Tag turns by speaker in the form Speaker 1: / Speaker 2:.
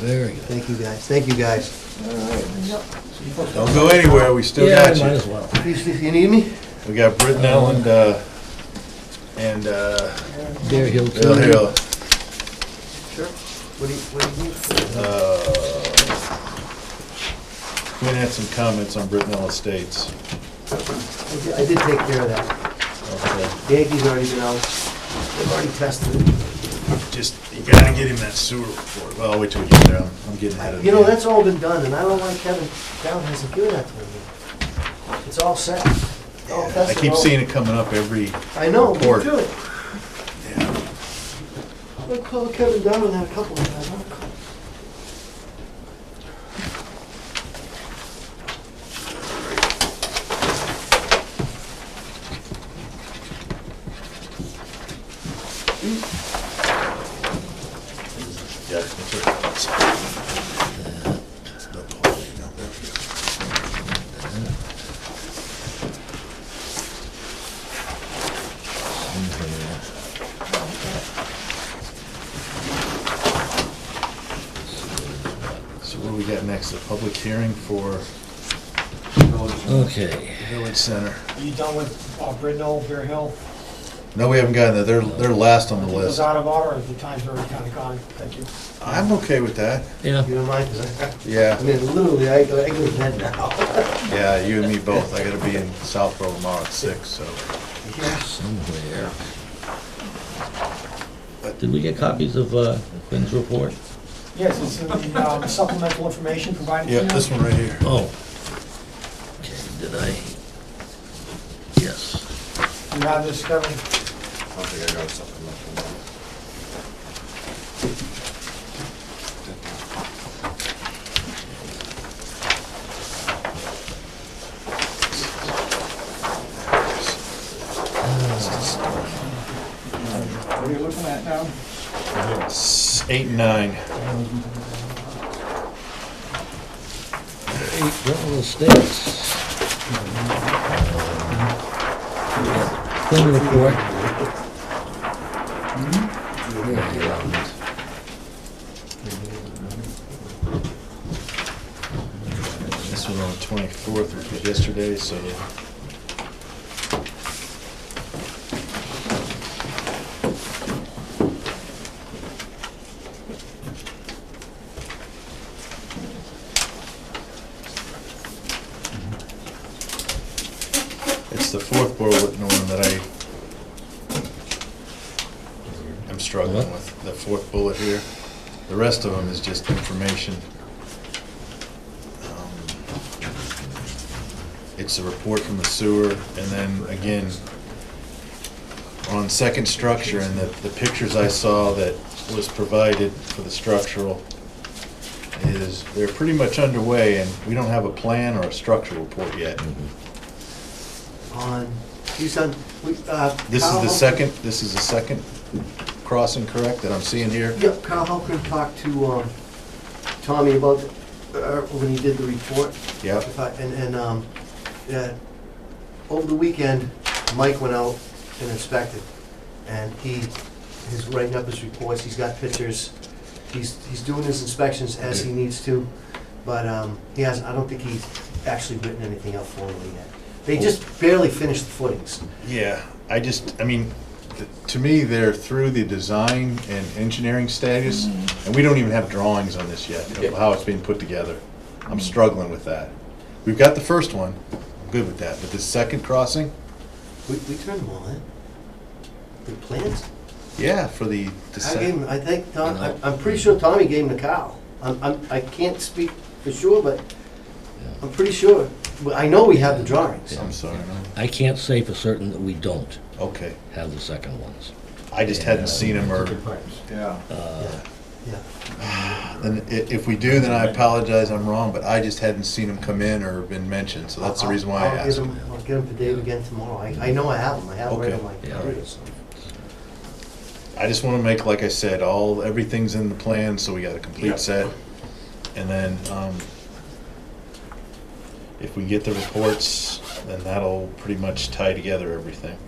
Speaker 1: Very good.
Speaker 2: Thank you, guys. Thank you, guys.
Speaker 3: Don't go anywhere, we still
Speaker 1: Yeah,
Speaker 3: got
Speaker 1: might
Speaker 3: you.
Speaker 1: as well.
Speaker 2: Please, if you need me?
Speaker 3: We got Britton Allen, uh, and, uh,
Speaker 1: Bear Hill
Speaker 3: Bill
Speaker 1: Key.
Speaker 3: Hill.
Speaker 2: Sure. What do you, what do you need?
Speaker 3: Uh, Quinn had some comments on Britton Allen Estates.
Speaker 2: I did- I did take care of that.
Speaker 3: Okay.
Speaker 2: Yankees already been out. They've already tested it.
Speaker 3: Just, you gotta get him that sewer report. Well, I'll wait till we get there, I'm I'm getting ahead of the
Speaker 2: You know,
Speaker 3: game.
Speaker 2: that's all been done, and I don't like Kevin Down hasn't given that to me. It's all set. All
Speaker 3: I
Speaker 2: tested.
Speaker 3: keep
Speaker 2: all-
Speaker 3: seeing it coming up every,
Speaker 2: I know, me
Speaker 3: Board.
Speaker 2: too. I called Kevin Dunn and had a couple of times. I'll call-
Speaker 3: yeah, that's right. So what do we got next? A public hearing for
Speaker 1: Okay.
Speaker 3: Village Center.
Speaker 4: Are you done with uh, Brindle, Bear Hill?
Speaker 3: No, we haven't gotten that. They're, they're last on the
Speaker 4: It was
Speaker 3: list.
Speaker 4: out of order, the time's already kind of gone, thank you.
Speaker 3: I'm okay with that.
Speaker 1: Yeah.
Speaker 2: You don't mind, 'cause I, I
Speaker 3: Yeah,
Speaker 2: mean, literally, I, I go to bed now.
Speaker 3: yeah, you and me both. I gotta be in Southborough tomorrow at six, so.
Speaker 1: Somewhere. Did we get copies of uh, Quinn's report?
Speaker 4: Yes, it's in the um, supplemental information provided.
Speaker 3: Yeah, this one right here.
Speaker 1: Oh. Okay, did I? Yes.
Speaker 4: You have this, Kevin?
Speaker 5: I don't think I got something left in there.
Speaker 4: What are you looking at now?
Speaker 3: S- Eight and nine.
Speaker 1: Eight Brentwood Estates. Quinn report. Hmm?
Speaker 3: This was on the twenty-fourth, which was yesterday, so. It's the fourth Berwick one that I am struggling
Speaker 1: What?
Speaker 3: with, the fourth bullet here. The rest of them is just information. Um, It's a report from the sewer, and then again, on second structure, and the, the pictures I saw that was provided for the structural is, they're pretty much underway, and we don't have a plan or a structural report yet.
Speaker 2: On, you son, we, uh.
Speaker 3: This is
Speaker 2: Kyle-
Speaker 3: the second, this is the second crossing, correct, that I'm seeing here?
Speaker 2: Yeah, Kyle Holcomb talked to, um, Tommy about, uh, when he did the report.
Speaker 3: Yep,
Speaker 2: If I- And, and, um, yeah, over the weekend, Mike went out and inspected, and he is writing up his reports, he's got pictures, he's, he's doing his inspections as he needs to, but, um, he hasn't, I don't think he's actually written anything up formally yet. They just barely finished the footings.
Speaker 3: yeah, I just, I mean, th- to me, they're through the design and engineering status,
Speaker 2: Mm-hmm.
Speaker 3: and we don't even have drawings on this yet, of how it's being put together. I'm struggling with that. We've got the first one, I'm good with that, but the second crossing,
Speaker 2: We, we turned them all in. The plans?
Speaker 3: yeah, for the, the
Speaker 2: I gave
Speaker 3: sec-
Speaker 2: him, I think, Tom, I- I'm pretty sure Tommy gave him the cow. I'm, I'm, I can't speak for sure, but I'm pretty sure. Well, I know we have the drawings.
Speaker 3: I'm sorry, no.
Speaker 1: I can't say for certain that we don't
Speaker 3: okay,
Speaker 1: have the second ones. Uh,
Speaker 3: I just hadn't seen him or
Speaker 5: Yeah.
Speaker 2: Yeah.
Speaker 3: Then i- if we do, then I apologize, I'm wrong, but I just hadn't seen them come in or been mentioned, so that's the reason why I
Speaker 2: I'll- I'll get
Speaker 3: asked.
Speaker 2: 'em- I'll get them to Dave again tomorrow. I, I know I have them. I have them right on my
Speaker 1: Okay. Yeah.
Speaker 2: computer, so.
Speaker 3: I just wanna make, like I said, all, everything's in the plan, so we got a complete set. And then, um, if we get the reports, then that'll pretty much tie together everything.